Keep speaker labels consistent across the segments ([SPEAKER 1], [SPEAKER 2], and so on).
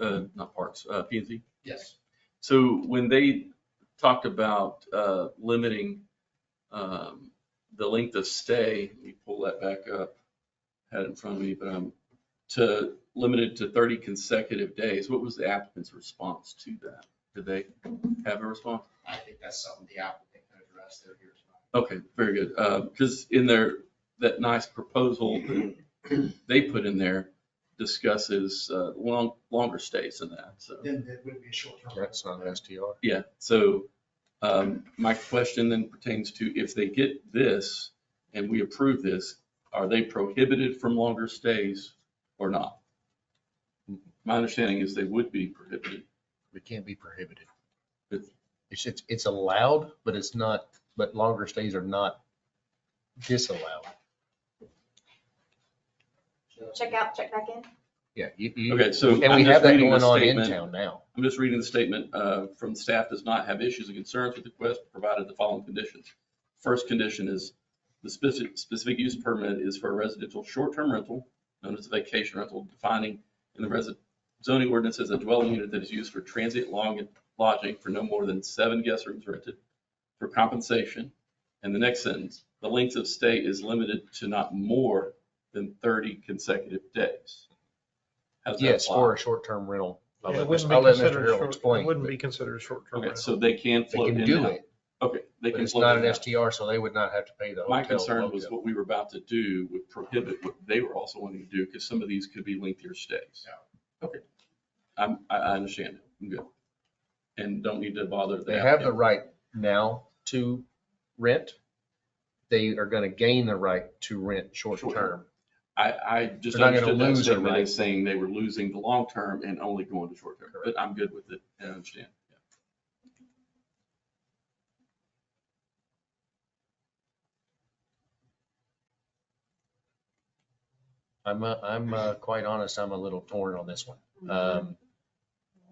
[SPEAKER 1] uh, not parks, uh, P and Z.
[SPEAKER 2] Yes.
[SPEAKER 1] So when they talked about, uh, limiting, um, the length of stay, let me pull that back up. Had it in front of me, but I'm to, limited to thirty consecutive days. What was the applicant's response to that? Did they have a response?
[SPEAKER 2] I think that's something the applicant can address there here as well.
[SPEAKER 1] Okay, very good. Uh, cause in their, that nice proposal they put in there discusses, uh, long, longer stays than that, so.
[SPEAKER 2] Then it would be a short term.
[SPEAKER 3] That's not an STR.
[SPEAKER 1] Yeah, so um, my question then pertains to if they get this and we approve this, are they prohibited from longer stays or not? My understanding is they would be prohibited.
[SPEAKER 3] It can't be prohibited. Mm-hmm.
[SPEAKER 1] It's-
[SPEAKER 3] It's, it's, it's allowed, but it's not, but longer stays are not disallowed.
[SPEAKER 4] Check out, check back in.
[SPEAKER 3] Yeah. you- you-
[SPEAKER 1] Okay, so
[SPEAKER 3] And
[SPEAKER 1] I'm
[SPEAKER 3] we
[SPEAKER 1] just
[SPEAKER 3] have that
[SPEAKER 1] reading the
[SPEAKER 3] going on in
[SPEAKER 1] statement.
[SPEAKER 3] town now.
[SPEAKER 1] I'm just reading the statement uh, from staff does not have issues and concerns with the request, provided the following conditions. First condition is the specific, specific use permit is for a residential short-term rental, known as a vacation rental, defining in the resident zoning ordinance as a dwelling unit that is used for transient long lodging for no more than seven guest rooms rented for compensation. And the next sentence, the length of stay is limited to not more than 30 consecutive days. How does that
[SPEAKER 3] Yes,
[SPEAKER 1] apply?
[SPEAKER 3] for a short-term rental. I'll
[SPEAKER 5] It
[SPEAKER 3] let
[SPEAKER 5] wouldn't
[SPEAKER 3] Mr.
[SPEAKER 5] be
[SPEAKER 3] I'll let
[SPEAKER 5] considered
[SPEAKER 3] Mr.
[SPEAKER 5] a
[SPEAKER 3] Harrell
[SPEAKER 5] short,
[SPEAKER 3] explain.
[SPEAKER 5] it wouldn't
[SPEAKER 3] but
[SPEAKER 5] be considered a short-term
[SPEAKER 1] Okay,
[SPEAKER 5] rental.
[SPEAKER 1] so they can
[SPEAKER 3] They
[SPEAKER 1] float in
[SPEAKER 3] can
[SPEAKER 1] and
[SPEAKER 3] do
[SPEAKER 1] out.
[SPEAKER 3] it,
[SPEAKER 1] Okay, they
[SPEAKER 3] but
[SPEAKER 1] can
[SPEAKER 3] it's
[SPEAKER 1] float
[SPEAKER 3] not
[SPEAKER 1] in and
[SPEAKER 3] an
[SPEAKER 1] out.
[SPEAKER 3] STR, so they would not have to pay the hotel.
[SPEAKER 1] My concern was
[SPEAKER 3] logo.
[SPEAKER 1] what we were about to do would prohibit what they were also wanting to do, because some of these could be lengthier stays. Okay. I'm, I, I understand it. I'm good. And don't need to bother.
[SPEAKER 3] They have the
[SPEAKER 1] applicant.
[SPEAKER 3] right now to rent. They are going to gain the right to rent short-term.
[SPEAKER 1] I, I just
[SPEAKER 3] They're not gonna
[SPEAKER 1] understood that
[SPEAKER 3] lose their
[SPEAKER 1] statement
[SPEAKER 3] right.
[SPEAKER 1] as saying they were losing the long term and only going to short term, but I'm good with it. I understand. Yeah.
[SPEAKER 3] I'm, uh, I'm uh, quite honest, I'm a little torn on this one. Um,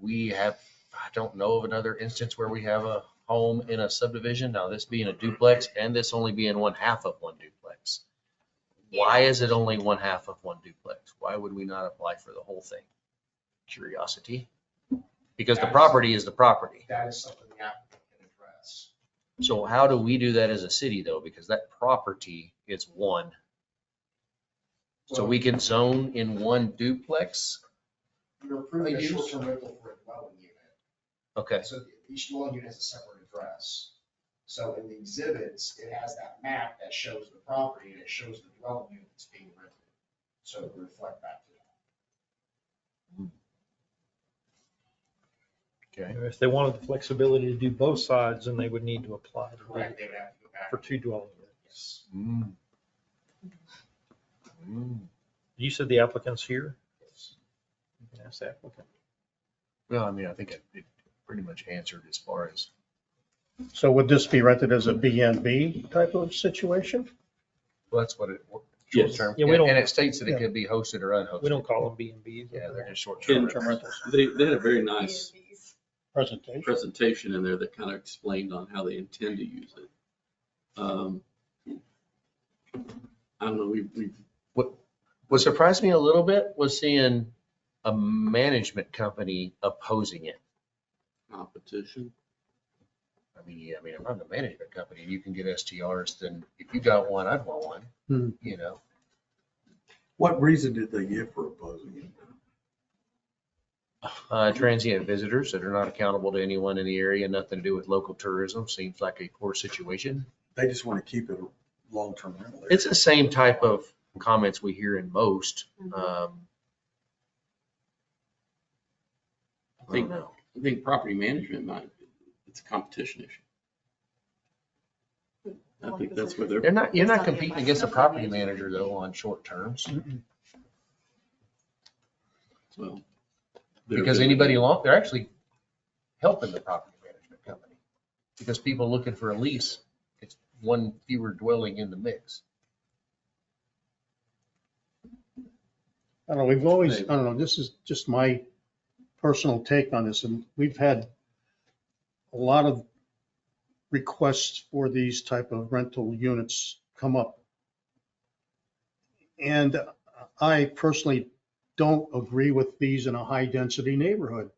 [SPEAKER 3] We have, I don't know of another instance where we have a home in a subdivision, now this being a duplex and this only being one half of one duplex. Why is it only one half of one duplex? Why would we not apply for the whole thing? Curiosity? Because the property is the property.
[SPEAKER 2] That is something the applicant can address.
[SPEAKER 3] So how do we do that as a city though? Because that property is one. So we can zone in one duplex?
[SPEAKER 2] You're approving
[SPEAKER 3] A
[SPEAKER 2] a
[SPEAKER 3] use?
[SPEAKER 2] short term rental for a dwelling unit.
[SPEAKER 3] Okay,
[SPEAKER 2] So each dwelling unit has a separate address. So in the exhibits, it has that map that shows the property and it shows the dwelling units being rented. So to reflect back to that.
[SPEAKER 3] okay.
[SPEAKER 5] If they wanted the flexibility to do both sides, then they would need to apply to the-
[SPEAKER 2] Correct, they would have to go back.
[SPEAKER 5] for two dwelling units.
[SPEAKER 2] Yes.
[SPEAKER 3] Mm. Mm.
[SPEAKER 5] You said the applicant's here?
[SPEAKER 2] Yes.
[SPEAKER 5] You can ask the applicant.
[SPEAKER 3] Well, I mean, I think it it pretty much answered as far as,
[SPEAKER 6] So would this be rented as a B and B type of situation?
[SPEAKER 3] well, that's what it. what-
[SPEAKER 1] Yes.
[SPEAKER 3] short-term-
[SPEAKER 5] Yeah, we don't-
[SPEAKER 3] And it states that it
[SPEAKER 6] yeah.
[SPEAKER 3] could be hosted or
[SPEAKER 5] We don't
[SPEAKER 3] unhosted.
[SPEAKER 5] call them B and Bs.
[SPEAKER 3] Yeah, they're just short-term.
[SPEAKER 1] And
[SPEAKER 6] Short-term rentals
[SPEAKER 1] they, they had a very nice
[SPEAKER 6] presentation.
[SPEAKER 1] presentation in there that kind of explained on how they intend to use it. Um, I don't know, we, we
[SPEAKER 3] What surprised me a little bit was seeing a management company opposing it.
[SPEAKER 1] competition.
[SPEAKER 3] I mean, yeah, I mean, if I'm a management company, you can get STRs, then if you got one, I'd want
[SPEAKER 6] Hmm.
[SPEAKER 3] one, you know?
[SPEAKER 7] What reason did they give for opposing it?
[SPEAKER 3] Uh, transient visitors that are not accountable to anyone in the area, nothing to do with local tourism, seems like a poor situation.
[SPEAKER 7] They just want to keep it a long-term rental. area.
[SPEAKER 3] It's the same type of comments we hear in most.
[SPEAKER 4] Mhm.
[SPEAKER 3] um,
[SPEAKER 1] I think, I think property management might, it's a competition issue. I think that's where they're,
[SPEAKER 3] They're not, you're
[SPEAKER 4] It's
[SPEAKER 3] not
[SPEAKER 4] not the
[SPEAKER 3] competing
[SPEAKER 4] advice.
[SPEAKER 3] against a property manager though on short terms,
[SPEAKER 1] well. they're-
[SPEAKER 3] because anybody long, they're actually helping the property management company. Because people looking for a lease, it's one fewer dwelling in the mix.
[SPEAKER 6] I don't know, we've always, I
[SPEAKER 1] Maybe.
[SPEAKER 6] don't know, this is just my personal take on this, and we've had a lot of requests for these type of rental units come up. And I personally don't agree with these in a high-density neighborhood.